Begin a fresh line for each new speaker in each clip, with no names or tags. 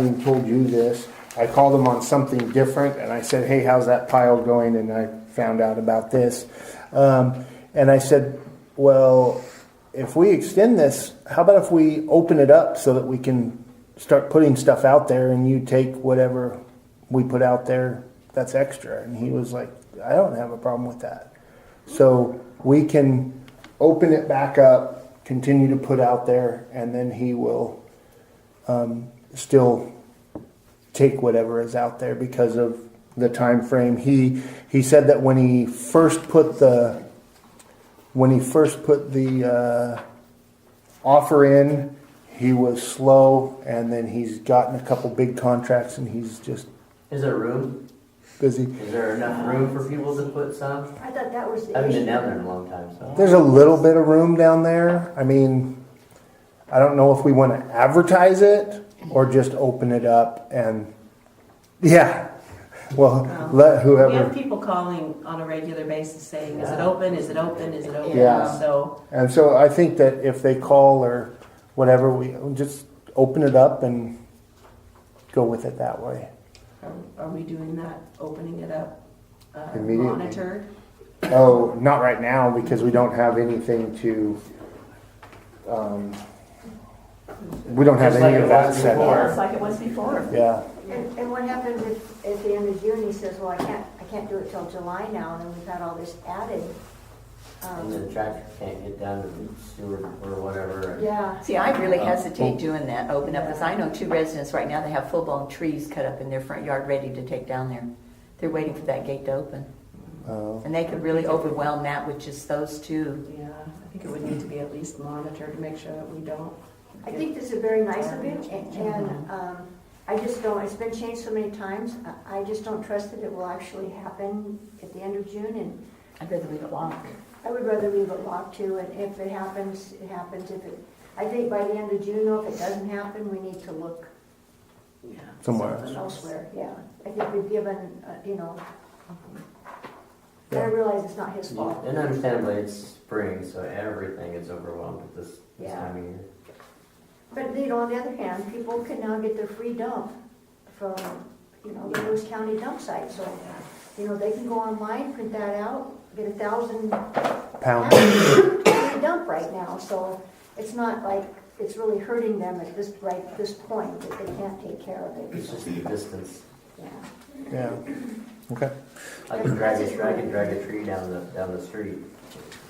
and told you this. I called them on something different and I said, hey, how's that pile going? And I found out about this. Um, and I said, well, if we extend this, how about if we open it up so that we can start putting stuff out there and you take whatever we put out there that's extra? And he was like, I don't have a problem with that. So we can open it back up, continue to put out there, and then he will still take whatever is out there because of the time frame. He he said that when he first put the when he first put the uh, offer in, he was slow, and then he's gotten a couple big contracts, and he's just
Is there room?
busy.
Is there enough room for people to put some?
I thought that was
I
the
haven't been
issue.
down there in a long time, so.
There's a little bit of room down there. I mean, I don't know if we want to advertise it or just open it up and yeah. Well, let
Um, We
whoever
have people calling on a regular basis saying, is it open, is it open, is it open?
Yeah.
So,
And so I think that if they call or whatever, we we just open it up and go with it that way.
are- are we doing that, opening it up? uh,
Immediately.
Monitored?
Oh, not right now because we don't have anything to. Um, we don't have
Just
any
like
of
it
that
was
set
before.
up.
It's like it was before.
Yeah,
And, and what happens if, at the end of June, he says, well, I can't, I can't do it till July now, and then we've had all this added.
And the
Um,
tractor can't get down to the sewer or whatever. and-
Yeah,
See, I really
Uh,
hesitate doing that, open up, because I know two residents right now that have full-blown trees cut up in their front yard ready to take down there. They're waiting for that gate to open.
Oh.
And they could really overwhelm that with just those two.
Yeah, I think it would need to be at least monitored to make sure that we don't.
I think this is very nice of him, and, and, um, I just don't, it's been changed so many times, I, I just don't trust that it will actually happen at the end of June, and
I'd rather leave it locked.
I would rather leave it locked too, and if it happens, it happens, if it, I think by the end of June, though, if it doesn't happen, we need to look
Yeah,
Somewhere.
something
elsewhere, yeah. I think we've given, uh, you know, and I realize it's not his fault.
And understandably, it's spring, so everything is overwhelmed at this, this
Yeah.
time of year.
But, you know, on the other hand, people can now get their free dump from, you know, the Lewis County dump site, so, you know, they can go online, print that out, get a thousand
pound.
pounds free dump right now, so it's not like, it's really hurting them at this, right, this point, that they can't take care of it,
It's just the distance.
yeah.
Yeah. Okay.
I can drag a, I can drag a tree down the, down the street,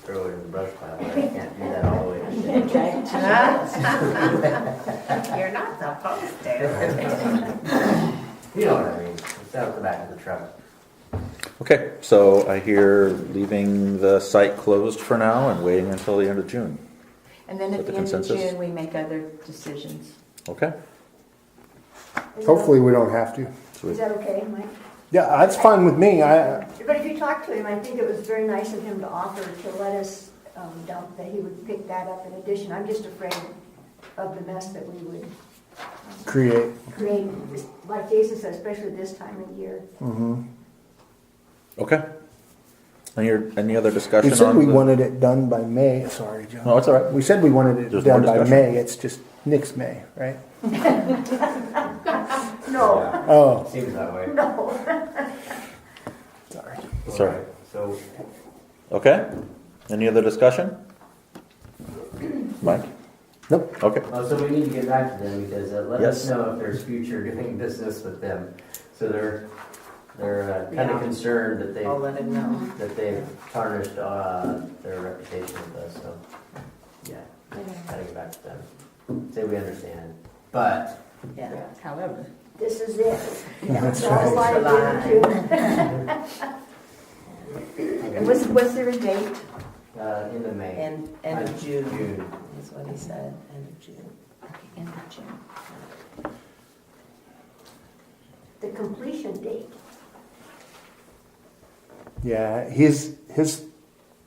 throw it in the brush pile, but I can't do that all the way. to the-
You're not supposed to.
You know what I mean? It's out the back of the truck.
Okay, so I hear leaving the site closed for now and waiting until the end of June.
And then
With
at
the
the end of
consensus?
June, we make other decisions.
Okay?
Is that-
Hopefully, we don't have to.
Is that okay, Mike?
Yeah, that's fine with me. I
But if you talk to him, I think it was very nice of him to offer to let us um, dump, that he would pick that up in addition. I'm just afraid of the mess that we would
create.
create, just like Jason said, especially this time of year.
Okay. Any, any other
We
discussion
said
on
we
the-
wanted it done by May. Sorry, John.
No, it's all right.
We said we wanted it
There's
done
more
by
discussion.
May. It's just next May, right?
No,
Yeah,
Oh,
Seems that way.
no.
sorry.
Sorry.
Alright, So,
Okay? Any other discussion? Mike?
Nope.
Okay.
uh, so we need to get back to them because uh, let us
Yes.
know if there's future doing business with them. So they're, they're kind
Yeah.
of concerned that they,
I'll let him know.
that they've tarnished uh, their reputation with us, so, yeah. Gotta get back to them. Say we understand, but
Yeah. However.
This is it. That's all I do to.
And was, was there a date?
uh, end of May.
End, end
Uh,
of June
June.
is what he said, end of June.
Okay, End of June.
The completion date.
Yeah, his his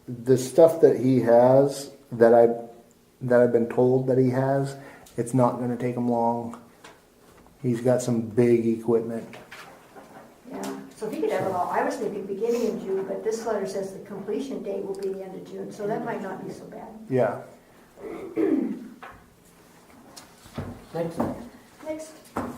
the stuff that he has that I that I've been told that he has, it's not going to take him long. He's got some big equipment.
Yeah, so if he could have it all, I was thinking beginning of June, but this letter says the completion date will be the end of June, so that might not be so bad.
Yeah.
Next,
Next,